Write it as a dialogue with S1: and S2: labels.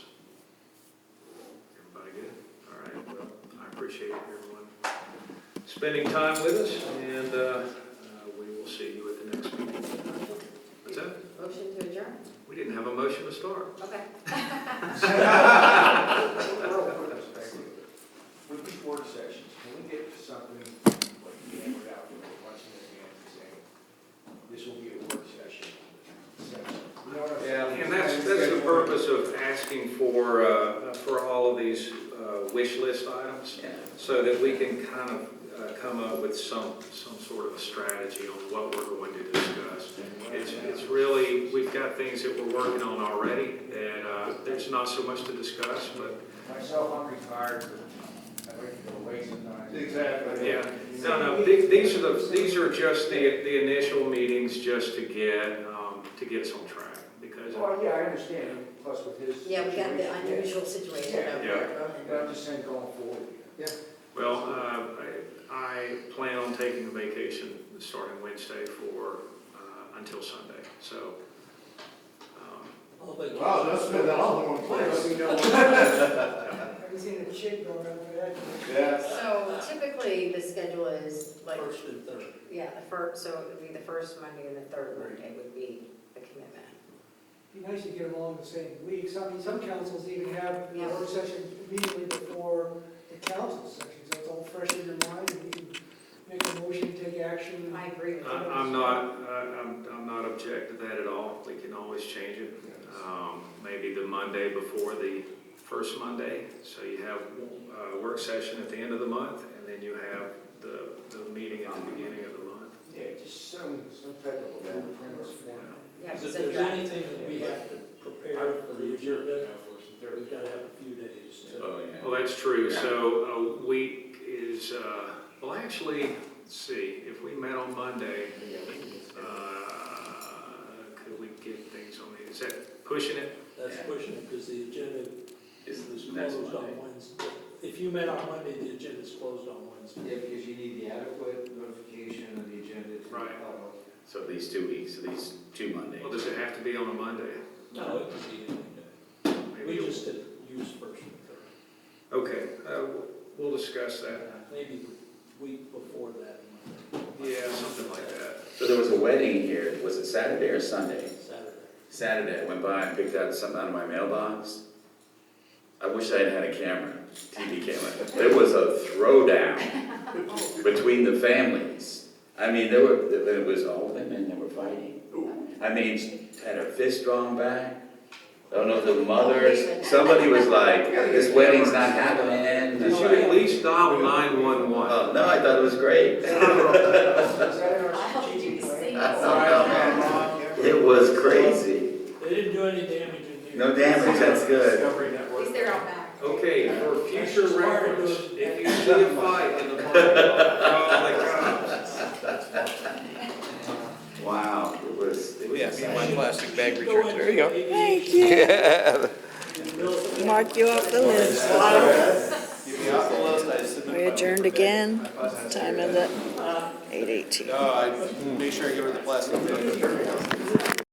S1: appreciate everyone spending time with us, and uh, uh, we will see you at the next meeting. What's that?
S2: Motion to adjourn,
S1: We didn't have a motion to start.
S2: okay.
S3: Real quick perspective, with these work sessions, can we get something, like, hammered out, you know, once in advance, and say, this will be a work session? session? You know what I'm saying?
S1: And that's, that's the purpose of asking for, uh, for all of these uh, wish list items, so that we can kind of uh, come up with some, some sort of a strategy on what we're going to discuss. It's, it's really, we've got things that we're working on already, and uh, there's not so much to discuss, but,
S3: Myself, I'm retired, but I'd like to go away sometime.
S4: Exactly.
S1: yeah. No, no, the- these are the, these are just the, the initial meetings just to get, um, to get us on track, because
S3: Well, yeah, I understand, plus with his.
S2: Yeah, we got the
S3: situation, yeah.
S2: unusual situation of
S3: But I'm just saying going forward. Yeah.
S1: Well, uh, I I plan on taking a vacation starting Wednesday for, uh, until Sunday, so. um,
S4: Wow, that's been all in one
S3: Let
S4: place.
S3: me know when-
S5: Have you seen a chick going over that?
S4: Yeah.
S2: So typically, the schedule is like,
S6: First and third.
S2: yeah, the first, so it would be the first Monday and the third Monday would be the commitment.
S5: Be nice to get them all in the same week. Some, I mean, some councils even have a
S2: Yeah.
S5: work session immediately before the council session, so it's all fresh in your mind, and you can make a motion, take action.
S2: I agree with
S1: I-
S2: you.
S1: I'm not, I- I'm I'm not object to that at all, we can always change it. Um, Maybe the Monday before the first Monday, so you have a work session at the end of the month, and then you have the, the meeting at the beginning of the month.
S3: Yeah, just some, some type of blueprint
S1: you
S3: or form.
S1: know.
S2: Yeah,
S6: Because if
S2: so
S6: there's
S2: you're-
S6: anything that we have to prepare for the agenda, we've got to have a few days to.
S3: Oh,
S1: Well, that's true, so a week is, uh, well, actually, let's see, if we met on Monday, uh, could we get things on the, is that pushing it?
S6: That's pushing it because the agenda is closed on Wednesday. If you met on Monday, the agenda's closed on Wednesday.
S7: Yeah, because you need the adequate notification of the agenda to the
S1: Right.
S7: public.
S8: So at least two weeks, at least two Mondays.
S1: Well, does it have to be on a Monday?
S6: No, it could be any day.
S1: Maybe
S6: We
S1: you'll-
S6: just did use first and third.
S1: Okay, uh, we'll discuss that.
S6: Maybe the week before that, Monday.
S1: Yeah, something like that.
S8: So there was a wedding here, was it Saturday or Sunday?
S6: Saturday.
S8: Saturday, I went by and picked out something out of my mailbox. I wish I had had a camera, TV camera. There was a throwdown between the families. I mean, there were, there was all women that were fighting. I mean, had her fist drawn back. I don't know if
S1: Oh,
S8: the mothers, somebody was like, this wedding's not happening.
S1: Did you at least dial nine-one-one?
S8: Oh, no, I thought it was great.
S3: Is that in
S2: I
S3: our
S2: hope you
S3: strategic plan?
S2: see.
S8: It was crazy.
S6: They didn't do any damage in here.
S8: No damage, that's good.
S4: Discovery Network.
S2: He's there all night.
S1: Okay, for future reference, if you see a fight in the parking lot, oh call the cops.
S8: Wow, it was, it was exciting.
S6: plastic bag return, there you go. Thank you.
S9: Mark you off the list.
S4: Give me off the list, I submit
S9: We
S4: my-
S9: adjourned again.
S4: I thought that's-
S9: Time of the eight eighteen.
S4: No, I make sure I give her the plastic bag.